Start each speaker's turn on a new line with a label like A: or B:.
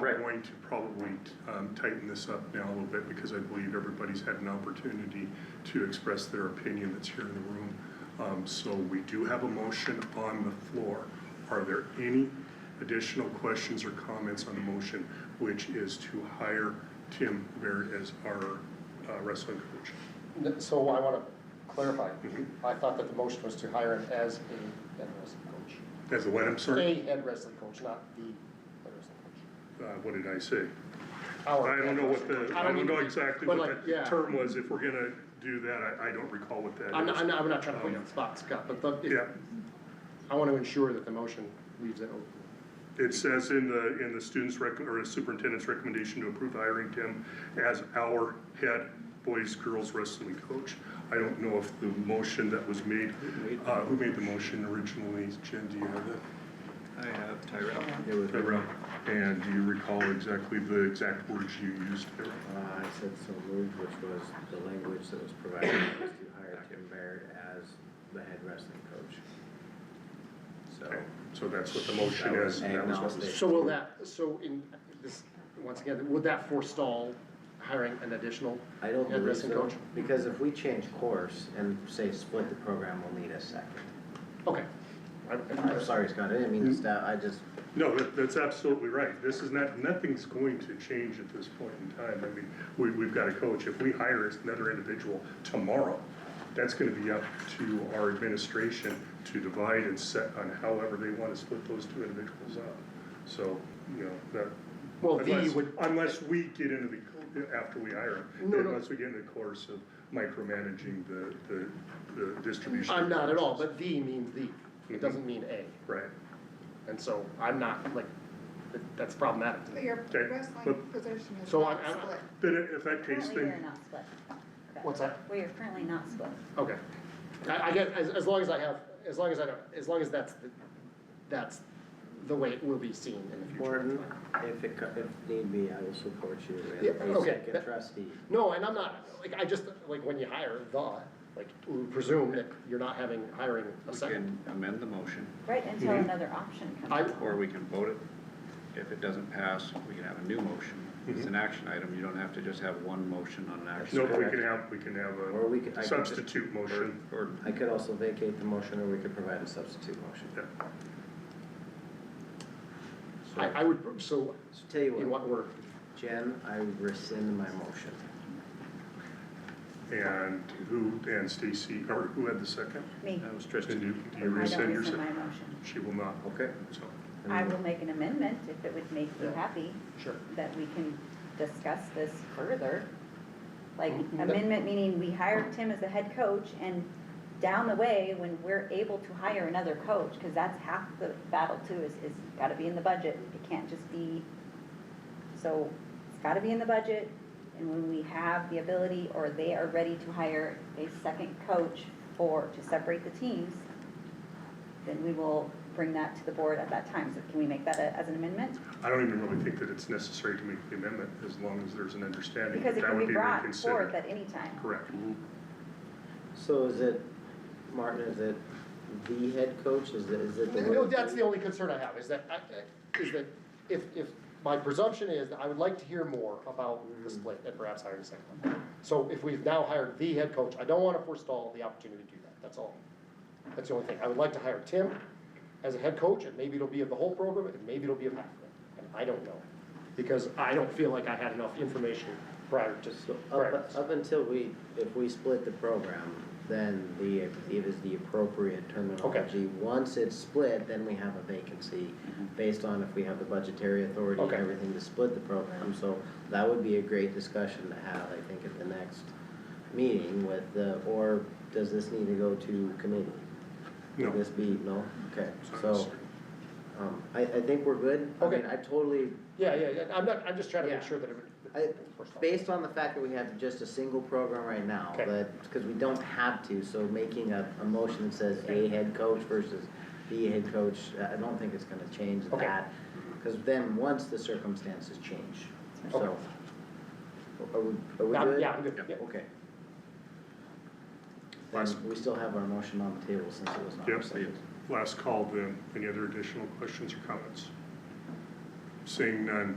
A: Correct.
B: going to probably um, tighten this up now a little bit because I believe everybody's had an opportunity to express their opinion that's here in the room. Um, So we do have a motion on the floor. Are there any additional questions or comments on the motion, which is to hire Tim Bear as our uh, wrestling coach?
A: N- So I want to clarify.
B: Mm-hmm.
A: I thought that the motion was to hire him as a head wrestling coach.
B: As the what, I'm sorry?
A: A head wrestling coach, not the head wrestling coach.
B: Uh, What did I say?
A: Our
B: I don't know
A: head
B: what
A: wrestling
B: the,
A: coach.
B: I don't
A: mean to
B: know
A: be-
B: exactly
A: but
B: what
A: like,
B: the
A: yeah.
B: term was, if we're gonna do that, I, I don't recall what that is.
A: I'm not, I'm not, I'm not trying to put you on the spot, Scott, but the-
B: Um, Yeah,
A: I want to ensure that the motion leaves it open.
B: it says in the, in the student's rec, or superintendent's recommendation to approve hiring Tim as our head boys, girls wrestling coach. I don't know if the motion that was made, uh, who made the motion originally, Jen, do you have that?
C: I have Tyrell.
B: Deborah, And do you recall exactly the exact words you used there?
D: Uh, I said so moved, which was the language that was provided, was to hire Tim Baird as the head wrestling coach. So,
B: Okay, So that's what the motion
D: That
B: is,
D: was
B: and that was what was.
D: agnostic.
A: So will that, so in this, once again, would that forestall hiring an additional
D: I don't
A: head
D: believe
A: wrestling
D: so,
A: coach?
D: because if we change course and say split the program, we'll need a second.
A: Okay. I-
D: I'm
A: I-
D: sorry, Scott, I didn't mean
A: Mm-hmm.
D: to stop, I just,
B: No, that, that's absolutely right. This is not, nothing's going to change at this point in time. I mean, we, we've got a coach. If we hire another individual tomorrow, that's gonna be up to our administration to divide and set on however they wanna split those two individuals up. So, you know, that.
A: Well, the
B: unless-
A: would-
B: Unless we get into the, co- after we hire them,
A: No, no.
B: unless we get in the course of micromanaging the, the, the distribution.
A: I'm not at all, but the means the,
B: Mm-hmm.
A: it doesn't mean a.
B: Right.
A: And so I'm not, like, th- that's problematic to
E: But
A: me.
E: your
B: Okay,
E: wrestling
B: but-
E: position is
A: So
E: not
A: I- I-
E: split.
B: Then if that case,
F: Currently, we are
B: then,
F: not split. Okay.
A: What's that?
F: We are currently not split.
A: Okay. I, I get, as, as long as I have, as long as I don't, as long as that's, the- that's the way it will be seen in the future.
D: Morton, if it, co- if need be, I will support you
A: Yeah,
D: as a
A: okay,
D: second
A: that-
D: trustee.
A: No, and I'm not, like, I just, like, when you hire the, like, we presume that you're not having, hiring a
C: We
A: second.
C: can amend the motion,
F: Right, until
B: Mm-hmm.
F: another option
A: I,
F: comes.
C: or we can vote it. If it doesn't pass, we can have a new motion. It's an action item, you don't have to just have one motion on an action.
B: no,
C: item.
B: we can have, we can have a.
D: Or we could, I could, just-
B: Substitute motion.
C: Or,
D: I could also vacate the motion, or we could provide a substitute motion.
B: Yeah.
D: So-
A: I, I would, so,
D: So tell you
A: in
D: what,
A: what word?
D: Jen, I rescind my motion.
B: And who, and Stacy, or who had the second?
F: Me,
C: that was
B: And
C: Tristan.
B: you,
F: I
B: you
F: don't
B: rescind your
F: rescind my
B: second?
F: motion.
B: She will not,
D: Okay.
B: so,
D: And
F: I
D: then-
F: will make an amendment if it would make you happy,
A: Sure.
F: that we can discuss this further. Like
A: Mhm.
F: amendment meaning we hired Tim as the head coach and down the way, when we're able to hire another coach, because that's half the battle too, is, is gotta be in the budget. It can't just be, so it's gotta be in the budget. And when we have the ability or they are ready to hire a second coach for, to separate the teams, then we will bring that to the board at that time. So can we make that a- as an amendment?
B: I don't even really think that it's necessary to make the amendment, as long as there's an understanding that
F: Because it
B: that
F: can
B: would
F: be
B: be
F: brought forth
B: reconsidered.
F: at any time.
B: Correct,
D: So is it, Martin, is it the head coach, is it, is it the?
A: No, that's the only concern I have, is that, I- I- is that if, if, my presumption is that I would like to hear more about the split and perhaps hiring a second one. So if we've now hired the head coach, I don't want to forestall the opportunity to do that, that's all. That's the only thing. I would like to hire Tim as a head coach, and maybe it'll be of the whole program, and maybe it'll be of half of it, and I don't know. Because I don't feel like I had enough information prior to,
D: So
A: prior
D: up, up until we, if we split the program, then the, it is the appropriate terminology. Once it's split, then we have a vacancy
B: Mm-hmm.
D: based on if we have the budgetary authority and
A: Okay.
D: everything to split the program. So that would be a great discussion to have, I think, at the next meeting with the, or does this need to go to committee?
B: No.
D: Would This be, no? Okay,
B: It's not
D: so,
B: necessary.
D: um, I, I think we're good. I mean,
A: Okay.
D: I totally
A: Yeah, yeah, yeah, I'm not, I'm just trying to make
D: Yeah.
A: sure that it.
D: I-
A: forestall.
D: Based on the fact that we have just a single program right now,
A: Okay.
D: but, because we don't have to, so making a, a motion that says a head coach versus the head coach, I I don't think it's gonna change
A: Okay.
D: that. Because then, once the circumstances change,
A: Okay.
D: so. Are we, are we
A: Yeah,
D: good?
A: yeah, I'm good, yeah.
D: Okay.
B: Last-
D: Then we still have our motion on the table since it was not.
B: Yep.
D: rescinded.
B: last call then, any other additional questions or comments? Seeing none,